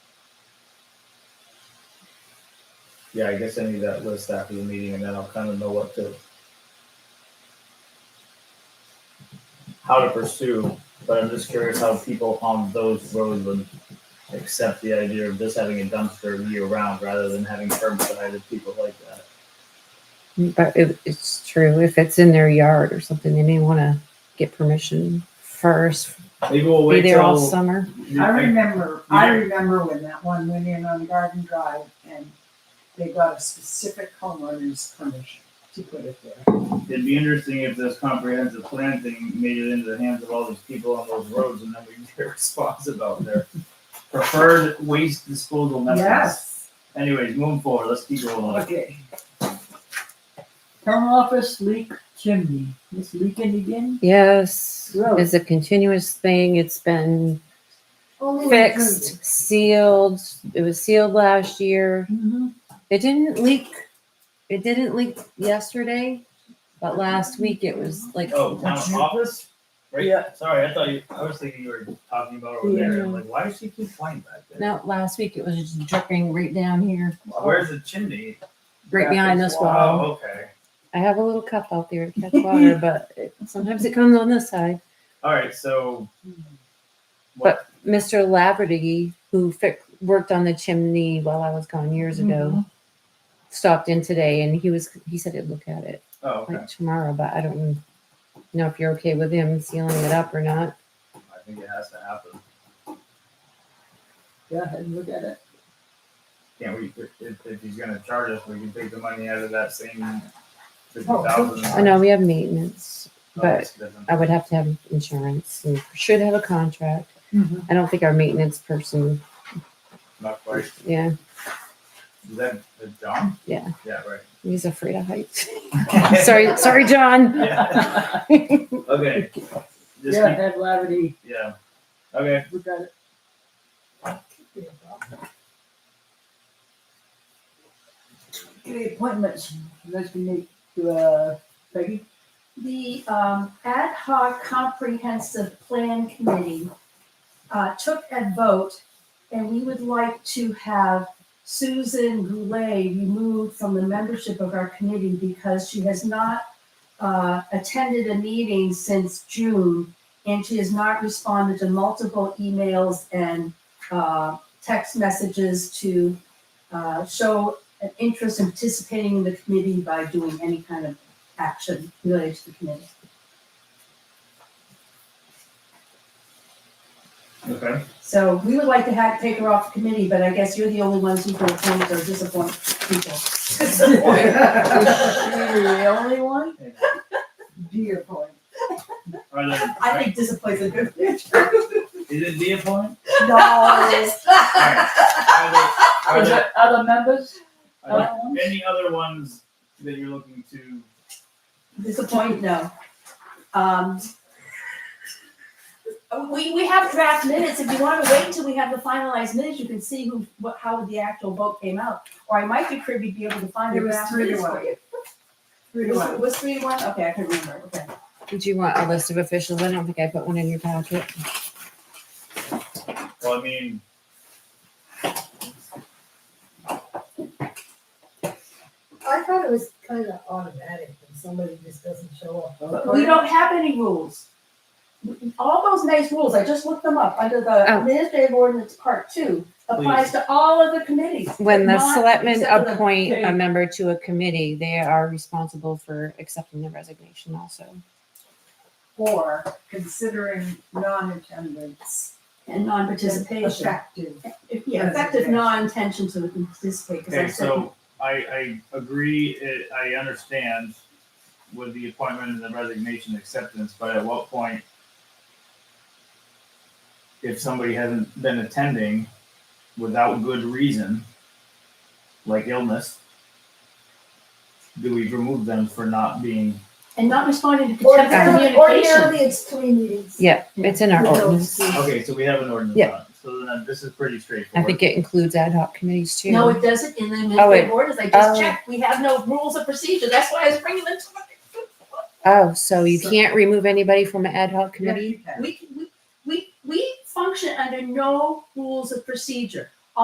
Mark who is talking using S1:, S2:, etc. S1: Yeah, I guess I need that list after the meeting and then I'll kind of know what to, how to pursue, but I'm just curious how people on those roads would accept the idea of just having a dumpster year round rather than having curbside if people like that.
S2: But it, it's true. If it's in their yard or something, they may want to get permission first.
S1: Maybe we'll
S2: Be
S1: wait
S2: there all
S1: till.
S2: summer.
S3: I remember, I
S1: Yeah.
S3: remember when that one went in on Garden Drive and they got a specific homeowner's permission to put it there.
S1: It'd be interesting if this comprehensive plan thing made it into the hands of all these people on those roads and then we can get a response about their preferred waste disposal methods.
S3: Yes,
S1: Anyways, moving forward, let's keep going on.
S3: okay.
S4: Town office leak chimney, this leaking again?
S2: Yes,
S4: Really?
S2: it's a continuous thing. It's been
S3: Only included.
S2: fixed, sealed. It was sealed last year.
S3: Mm-hmm.
S4: Mhm.
S2: It didn't leak. It didn't leak yesterday, but last week it was like
S1: Oh, town office? Right?
S4: Yeah.
S1: Sorry, I thought you, I was thinking you were talking about over there. I'm like, why does she keep flying back there?
S2: no, last week it was just dripping right down here,
S1: Where's the chimney?
S2: right behind this wall.
S1: Oh, okay.
S2: I have a little cup out there to catch water, but it, sometimes it comes on this side.
S1: All right, so. What,
S2: Mr. Laverty, who fi- worked on the chimney while I was gone years ago, stopped in today and he was he said he'd look at it
S1: oh, okay.
S2: like tomorrow, but I don't know if you're okay with him sealing it up or not.
S1: I think it has to happen.
S4: Go ahead and look at it.
S1: Can't we, if, if he's gonna charge us, we can take the money out of that same fifty thousand.
S2: Oh, I know we have maintenance. but I would have to have insurance and should have a contract.
S4: Mhm.
S2: I don't think our maintenance person,
S1: Not quite. Is
S2: yeah,
S1: that is John?
S2: Yeah.
S1: Yeah, right.
S2: he's afraid of heights. sorry, sorry, John.
S1: Yeah. Okay. Just
S4: Yeah, had Laverty,
S1: keep- yeah. Okay.
S4: look at it. Okay, appointments, let's make, uh, Peggy,
S5: The um, ad hoc comprehensive plan committee uh, took a vote, and we would like to have Susan Goulet removed from the membership of our committee because she has not uh, attended a meeting since June, and she has not responded to multiple emails and uh, text messages to uh, show an interest in participating in the committee by doing any kind of action related to the committee.
S1: Okay.
S5: So we would like to have, take her off the committee, but I guess you're the only ones who can appoint or disappoint people.
S4: the only one?
S3: Dear boy.
S1: Are there,
S5: I think disappoint's a good
S1: is it the appointment?
S4: No.
S1: Are
S4: Is
S1: there,
S4: there other members?
S1: are there
S4: Other ones?
S1: any other ones that you're looking to?
S5: Disappoint, no. Um. We, we have draft minutes. If you want to wait until we have the finalized minutes, you can see who, what, how the actual vote came out. Or I might be privy to be able to find
S3: It
S5: the
S3: was
S5: draft
S3: three to
S5: minutes for
S3: one.
S5: you.
S3: Three
S5: It
S3: to
S5: was-
S3: one.
S5: it was three to one? Okay, I can remember, okay.
S2: Did you want a list of officials? I don't think I put one in your packet.
S1: Well, I mean.
S6: I thought it was kind of automatic when somebody just doesn't show up.
S5: But we don't have any rules. All those nice rules, I just looked them up, under the
S2: Oh.
S5: administrative ordinance part two, applies to all of the committees.
S2: When the
S5: but not
S2: selectmen
S5: except for the-
S2: appoint a member to a committee, they are responsible for accepting the resignation also.
S3: Or considering non-attendance
S5: And non-participation.
S3: effective.
S5: If- Yeah, effective non-intention to participate, because I
S1: Okay,
S5: said,
S1: so I, I agree, it- I understand with the appointment and the resignation acceptance, but at what point? If somebody hasn't been attending without good reason, like illness, do we remove them for not being,
S5: and not responding to contempt of
S6: Ordinarily,
S5: communication.
S6: ordinarily, it's three meetings.
S2: Yeah, it's in our
S6: With those
S2: ordinance.
S6: two.
S1: okay, so we have an ordinance
S2: Yeah.
S1: on it, so then this is pretty
S2: I
S1: straightforward.
S2: think it includes ad hoc committees too.
S5: No, it doesn't in the
S2: Oh, it-
S5: administrative ordinance, I just
S2: oh.
S5: checked, we have no rules of procedure, that's why I was bringing them to.
S2: Oh, so you
S3: So-
S2: can't remove anybody from an ad hoc committee?
S3: Committee.
S5: We, we, we, we function under no rules of procedure.